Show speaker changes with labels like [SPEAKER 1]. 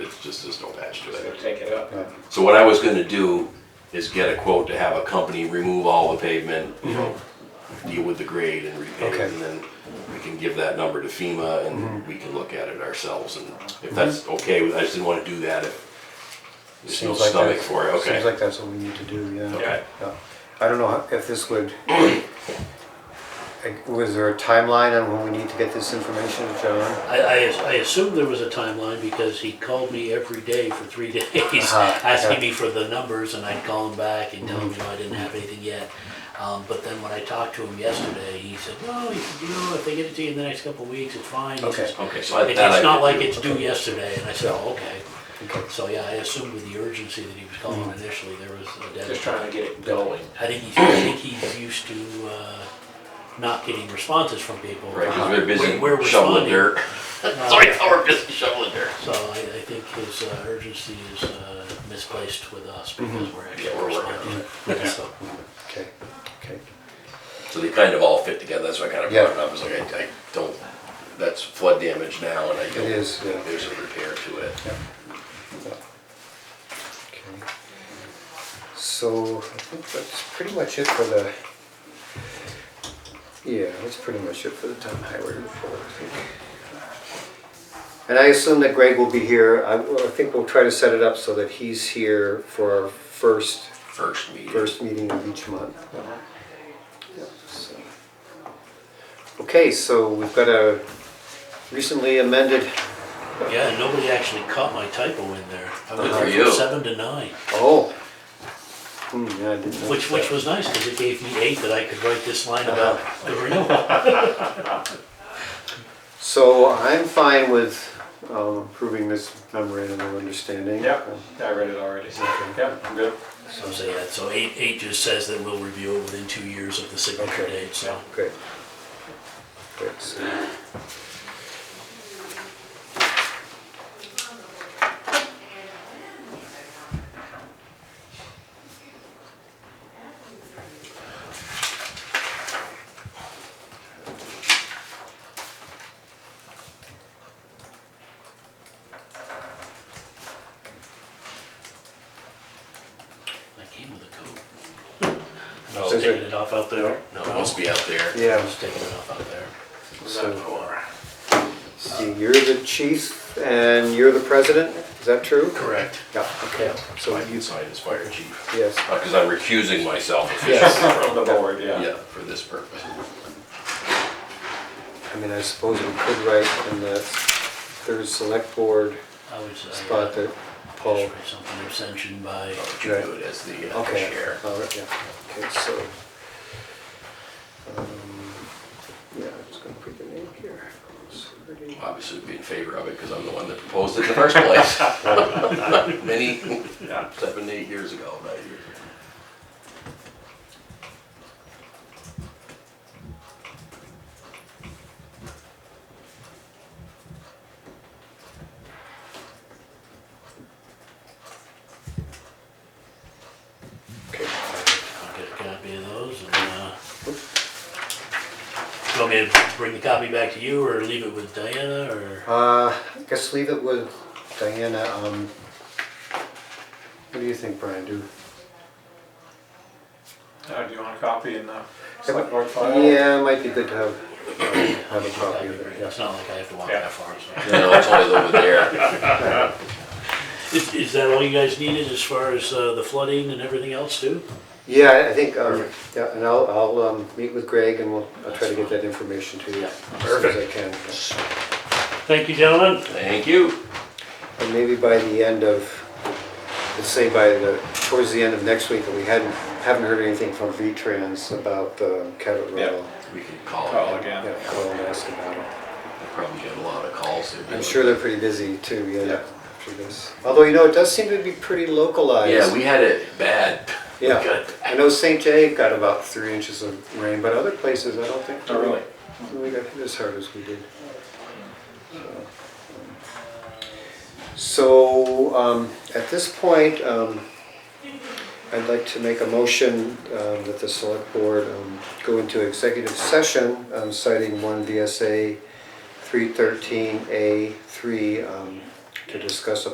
[SPEAKER 1] just there's no patch to
[SPEAKER 2] They're
[SPEAKER 1] it.
[SPEAKER 2] taking it up.
[SPEAKER 1] So what I was gonna do is get a quote to have a company remove all the pavement, you know, deal with the grade and repave,
[SPEAKER 3] Mm-hmm. Okay. Mm-hmm.
[SPEAKER 1] and then we can give that number to FEMA and we can look at it ourselves, and if that's okay, with- I just didn't wanna do that if there's no
[SPEAKER 3] Seems like
[SPEAKER 1] stomach
[SPEAKER 3] that's-
[SPEAKER 1] for it,
[SPEAKER 3] Seems
[SPEAKER 1] okay.
[SPEAKER 3] like that's what we need to do, yeah.
[SPEAKER 1] Okay.
[SPEAKER 3] Yeah. I don't know how- if this would, like, was there a timeline on when we need to get this information, John?
[SPEAKER 4] I, I, I assumed there was a timeline because he called me every day for three days,
[SPEAKER 3] Uh-huh, yeah.
[SPEAKER 4] asking me for the numbers, and I'd call him back and tell him, you know, I didn't have anything yet. Um, but then when I talked to him yesterday, he said, no, he said, you know, if they get it to you in the next couple of weeks, it's fine. He
[SPEAKER 3] Okay.
[SPEAKER 4] says,
[SPEAKER 1] Okay, so I-
[SPEAKER 4] It-
[SPEAKER 1] that I
[SPEAKER 4] It's not
[SPEAKER 1] could
[SPEAKER 4] like
[SPEAKER 1] do.
[SPEAKER 4] it's due yesterday, and I said, oh, okay.
[SPEAKER 3] Okay.
[SPEAKER 4] So, yeah, I assumed with the urgency that he was calling initially, there was a deadline.
[SPEAKER 2] Just trying to get it going.
[SPEAKER 4] I think he's, I think he's used to, uh, not getting responses from people. Uh-huh.
[SPEAKER 1] Right, cause we're busy
[SPEAKER 4] We're- we're
[SPEAKER 1] shoveling
[SPEAKER 4] responding.
[SPEAKER 1] dirt.
[SPEAKER 4] Uh,
[SPEAKER 1] Sorry, we're busy shoveling dirt.
[SPEAKER 4] So I, I think his uh, urgency is uh, misplaced with us because we're
[SPEAKER 1] Mm-hmm. Yeah,
[SPEAKER 4] actually
[SPEAKER 1] we're working on
[SPEAKER 4] responding. So,
[SPEAKER 3] Okay, okay.
[SPEAKER 1] So they kind of all fit together, that's why I kind of brought it
[SPEAKER 3] Yeah.
[SPEAKER 1] up, it's like, I, I don't, that's flood damage now, and I don't.
[SPEAKER 3] is, yeah.
[SPEAKER 1] think There's a repair to it.
[SPEAKER 3] Yeah. Okay. So I think that's pretty much it for the, yeah, that's pretty much it for the town highway report, I think. And I assume that Greg will be here. I, well, I think we'll try to set it up so that he's here for our first,
[SPEAKER 1] First meeting.
[SPEAKER 3] first meeting of each month. Yeah, so. Okay, so we've got a recently amended,
[SPEAKER 4] Yeah, and nobody actually caught my typo in there. I
[SPEAKER 1] Good
[SPEAKER 4] went
[SPEAKER 1] for
[SPEAKER 4] from
[SPEAKER 1] you.
[SPEAKER 4] seven to nine,
[SPEAKER 3] oh. Hmm, yeah, I didn't notice
[SPEAKER 4] which, which
[SPEAKER 3] that.
[SPEAKER 4] was nice because it gave me eight that I could write this line
[SPEAKER 1] Uh-huh.
[SPEAKER 4] about the renewal.
[SPEAKER 3] So I'm fine with um, approving this memorandum of understanding.
[SPEAKER 2] Yep, I read it already, so, yeah, I'm good.
[SPEAKER 4] So say that, so eight, eight just says that we'll review it within two years of the signature
[SPEAKER 3] Okay.
[SPEAKER 4] date, so.
[SPEAKER 3] Great. Great. so-
[SPEAKER 4] I came with a coat.
[SPEAKER 1] No,
[SPEAKER 4] I was
[SPEAKER 3] Is
[SPEAKER 4] taking
[SPEAKER 3] it-
[SPEAKER 4] it off out there.
[SPEAKER 1] No, it must be out there.
[SPEAKER 4] I
[SPEAKER 3] Yeah,
[SPEAKER 4] was taking it off out there.
[SPEAKER 3] so
[SPEAKER 1] Or-
[SPEAKER 3] see, you're the chief and you're the president, is that true?
[SPEAKER 4] Correct.
[SPEAKER 3] Yeah, okay, so
[SPEAKER 1] So I
[SPEAKER 3] you,
[SPEAKER 1] can sign as fire chief.
[SPEAKER 3] yes,
[SPEAKER 1] Because I'm recusing myself
[SPEAKER 3] Yes.
[SPEAKER 1] officially
[SPEAKER 2] From the
[SPEAKER 1] from,
[SPEAKER 2] board, yeah.
[SPEAKER 1] yeah, for this purpose.
[SPEAKER 3] I mean, I suppose we could write in the third select board
[SPEAKER 4] I was, I, uh,
[SPEAKER 3] spot that Paul.
[SPEAKER 4] just write something abstention by,
[SPEAKER 1] I'll let you do it as the uh,
[SPEAKER 3] Okay,
[SPEAKER 1] chair.
[SPEAKER 3] all right, yeah, okay, so. um, Yeah, I'm just gonna put the name here. Sorry.
[SPEAKER 1] Obviously be in favor of it because I'm the one that proposed it in the first place. Many,
[SPEAKER 2] Yeah.
[SPEAKER 1] seven, eight years ago, nine years ago.
[SPEAKER 4] I'll get a copy of those and, uh, you want me to bring the copy back to you or leave it with Diana or?
[SPEAKER 3] Uh, I guess leave it with Diana, um, what do you think, Brian, do?
[SPEAKER 2] Uh, do you want a copy in the select board file?
[SPEAKER 3] Yeah, it might be good to have, um, have a copy of it,
[SPEAKER 4] It's
[SPEAKER 3] yeah.
[SPEAKER 4] not like I have to walk
[SPEAKER 2] Yeah.
[SPEAKER 4] that far, so.
[SPEAKER 1] No, it's always over there.
[SPEAKER 4] Is, is that all you guys needed as far as, uh, the flooding and everything else too?
[SPEAKER 3] Yeah, I think, um, yeah, and I'll, I'll, um, meet with Greg and we'll, I'll try to get that information to you as soon as I can.
[SPEAKER 4] Thank you, gentlemen.
[SPEAKER 1] Thank you.
[SPEAKER 3] And maybe by the end of, let's say by the, towards the end of next week, that we hadn't, haven't heard anything from V-Trans about the Cabot
[SPEAKER 2] Yeah. Oh,
[SPEAKER 3] Rail.
[SPEAKER 1] We can call
[SPEAKER 2] Call
[SPEAKER 1] it.
[SPEAKER 3] Yeah,
[SPEAKER 2] again.
[SPEAKER 3] well, and ask about it.
[SPEAKER 1] I Probably get a lot of calls. They've been-
[SPEAKER 3] I'm sure they're pretty busy too,
[SPEAKER 2] Yeah.
[SPEAKER 3] yeah, after this. Although, you know, it does seem to be pretty localized.
[SPEAKER 1] Yeah, we had it bad. We
[SPEAKER 3] Yeah.
[SPEAKER 1] got it
[SPEAKER 3] I know St. Jay got about three inches of rain, but other places, I don't think.
[SPEAKER 2] Oh, really?
[SPEAKER 3] We got hit as hard as we did. So, um, at this point, um, I'd like to make a motion, um, that the select board, um, go into executive session, um, citing one VSA three thirteen A three, um, to discuss a